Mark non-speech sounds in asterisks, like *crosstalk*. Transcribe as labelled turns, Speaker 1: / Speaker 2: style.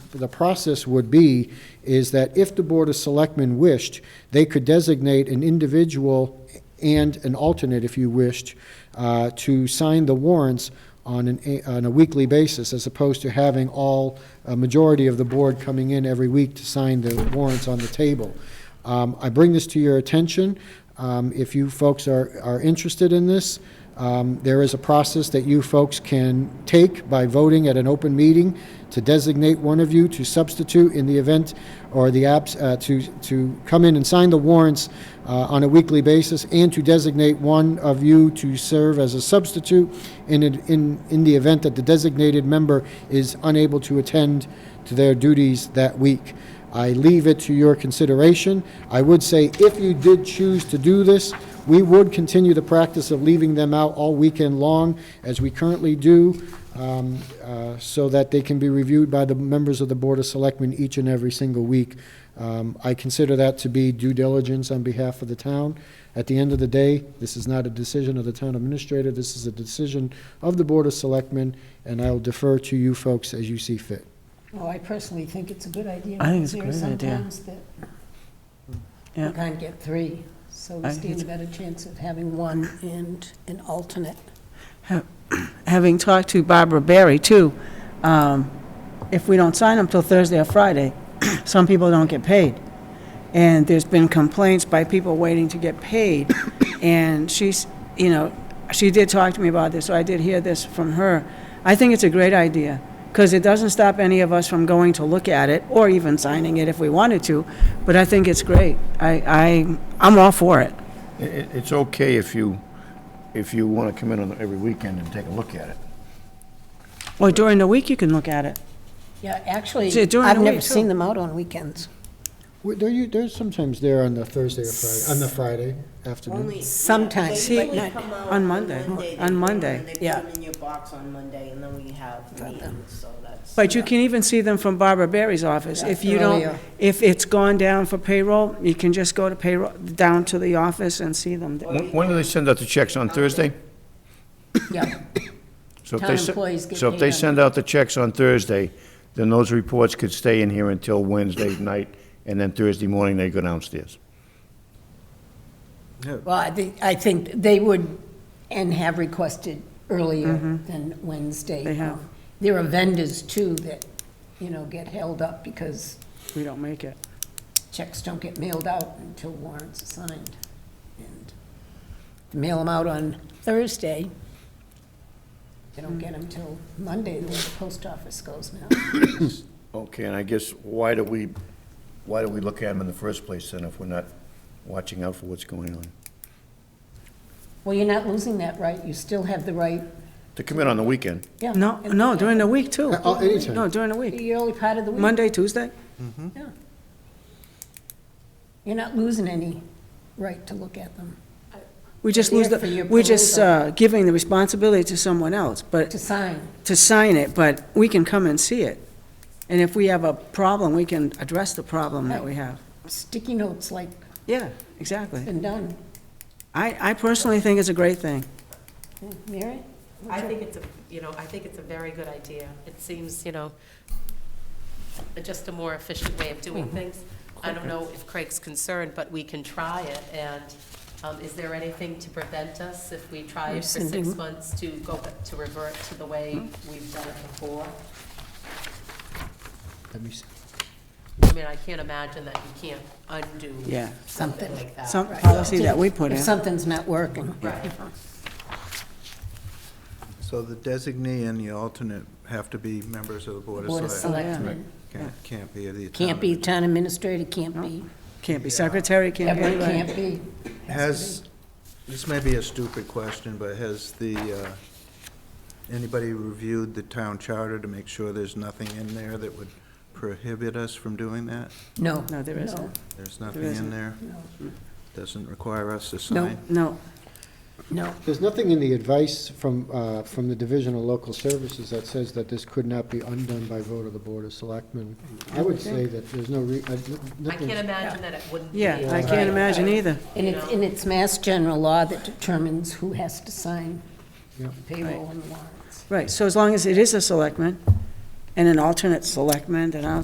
Speaker 1: the process would be is that if the Board of Selectmen wished, they could designate an individual and an alternate, if you wished, uh, to sign the warrants on an, a- on a weekly basis, as opposed to having all, a majority of the board coming in every week to sign the warrants on the table. Um, I bring this to your attention. Um, If you folks are, are interested in this, um, there is a process that you folks can take by voting at an open meeting to designate one of you to substitute in the event or the apps, uh, to, to come in and sign the warrants uh, on a weekly basis and to designate one of you to serve as a substitute in, it- in, in the event that the designated member is unable to attend to their duties that week. I leave it to your consideration. I would say, if you did choose to do this, we would continue the practice of leaving them out all weekend long, as we currently do, um, uh, so that they can be reviewed by the members of the Board of Selectmen each and every single week. Um, I consider that to be due diligence on behalf of the town. At the end of the day, this is not a decision of the town administrator, this is a decision of the Board of Selectmen, and I'll defer to you folks as you see fit.
Speaker 2: Well, I personally think it's a good idea.
Speaker 3: I think it's a
Speaker 2: because
Speaker 3: great idea.
Speaker 2: There are sometimes that
Speaker 3: Yeah.
Speaker 2: you can't get three, so
Speaker 3: I
Speaker 2: we
Speaker 3: think
Speaker 2: stand a better chance of having one and an alternate.
Speaker 3: having talked to Barbara Berry, too, um, if we don't sign them till Thursday or Friday, *clears throat* some people don't get paid. And there's been complaints by people waiting to get paid. And she's, you know, she did talk to me about this, so I did hear this from her. I think it's a great idea, because it doesn't stop any of us from going to look at it, or even signing it if we wanted to, but I think it's great. I, I, I'm all for it.
Speaker 4: It- it- It's okay if you, if you want to come in on every weekend and take a look at it.
Speaker 3: Or during the week, you can look at it.
Speaker 2: Yeah, actually,
Speaker 3: See, during
Speaker 2: I've
Speaker 3: the
Speaker 2: never
Speaker 3: week, too.
Speaker 2: seen them out on weekends.
Speaker 1: Well, There you, there's sometimes there on the Thursday or Friday, on the Friday afternoon.
Speaker 5: Only.
Speaker 2: Sometimes,
Speaker 5: They
Speaker 3: but
Speaker 5: only
Speaker 2: not-
Speaker 5: come out
Speaker 3: on Monday,
Speaker 5: they
Speaker 3: on
Speaker 5: do it,
Speaker 3: Monday,
Speaker 5: and
Speaker 2: yeah.
Speaker 5: They put them in your box on Monday, and then we have meetings, so that's.
Speaker 3: But you can even see them from Barbara Berry's office. If you
Speaker 2: Earlier.
Speaker 3: don't, if it's gone down for payroll, you can just go to payroll, down to the office and see them.
Speaker 4: When when do they send out the checks? On Thursday?
Speaker 2: Yeah,
Speaker 4: So if
Speaker 2: Town
Speaker 4: they se-
Speaker 2: employees get
Speaker 4: So if
Speaker 2: paid
Speaker 4: they
Speaker 2: on-
Speaker 4: send out the checks on Thursday, then those reports could stay in here until Wednesday night, and then Thursday morning, they go downstairs.
Speaker 2: well, I think, I think they would, and have requested earlier than Wednesday.
Speaker 3: Mm-hmm.
Speaker 2: Um,
Speaker 3: They have.
Speaker 2: There are vendors, too, that, you know, get held up because
Speaker 3: We don't make it.
Speaker 2: checks don't get mailed out until warrants are signed. And mail them out on Thursday. They don't get them till Monday, the way the post office goes now.
Speaker 4: Okay, and I guess, why do we, why do we look at them in the first place, then, if we're not watching out for what's going on?
Speaker 2: Well, you're not losing that right, you still have the right,
Speaker 4: To come in on the weekend?
Speaker 2: yeah.
Speaker 3: No,
Speaker 2: and-
Speaker 3: no, during the week, too.
Speaker 2: oh,
Speaker 1: Uh, uh, anytime.
Speaker 3: No, during the week.
Speaker 2: The early part of the week.
Speaker 3: Monday, Tuesday?
Speaker 2: Yeah. You're not losing any right to look at them,
Speaker 3: We just lose
Speaker 2: There for your
Speaker 3: the, we're just
Speaker 2: perusal.
Speaker 3: uh, giving the responsibility to someone else, but,
Speaker 2: to sign.
Speaker 3: to sign it, but we can come and see it. And if we have a problem, we can address the problem that we have.
Speaker 2: Sticky notes like
Speaker 3: Yeah, exactly.
Speaker 2: been done.
Speaker 3: I, I personally think it's a great thing.
Speaker 2: Mary?
Speaker 6: I think it's a, you know, I think it's a very good idea. It seems, you know, just a more efficient way of
Speaker 3: Mm-hmm.
Speaker 6: doing things. I don't know if Craig's concerned, but we can try it, and um, is there anything to prevent us if we try it for six
Speaker 2: Rescinding.
Speaker 6: months to go, back- to revert to the way
Speaker 3: Mm-hmm.
Speaker 6: we've done it before?
Speaker 1: Let me see.
Speaker 6: I mean, I can't imagine that you can't undo
Speaker 3: Yeah.
Speaker 6: something like that.
Speaker 3: Some policy that we put in.
Speaker 2: If something's not working.
Speaker 6: Right.
Speaker 7: So the designee and the alternate have to be members of the Board
Speaker 2: Board
Speaker 7: of
Speaker 2: of
Speaker 7: Select.
Speaker 2: Selectmen.
Speaker 7: Can't- Can't be the.
Speaker 2: Can't be
Speaker 7: town
Speaker 2: town administrator, can't be,
Speaker 3: Can't be secretary, can't be
Speaker 2: everybody
Speaker 3: anybody.
Speaker 2: can't be.
Speaker 7: administrator. Has, this may be a stupid question, but has the, uh, anybody reviewed the town charter to make sure there's nothing in there that would prohibit us from doing that?
Speaker 2: No.
Speaker 3: No, there isn't.
Speaker 7: There's nothing in
Speaker 3: isn't.
Speaker 7: there? Doesn't require us to
Speaker 2: No.
Speaker 7: sign?
Speaker 3: No,
Speaker 2: No,
Speaker 1: There's nothing in the advice from, uh, from the Division of Local Services that says that this could not be undone by vote of the Board of Selectmen. I would say that there's no re, I-
Speaker 6: I can't
Speaker 1: nothing,
Speaker 6: imagine that it wouldn't be.
Speaker 3: yeah, I
Speaker 6: Right.
Speaker 3: can't imagine either.
Speaker 2: and it's, and it's mass general law that determines who has to sign
Speaker 1: Yeah.
Speaker 2: payroll and warrants.
Speaker 3: Right, so as long as it is a selectman and an alternate selectman, then I don't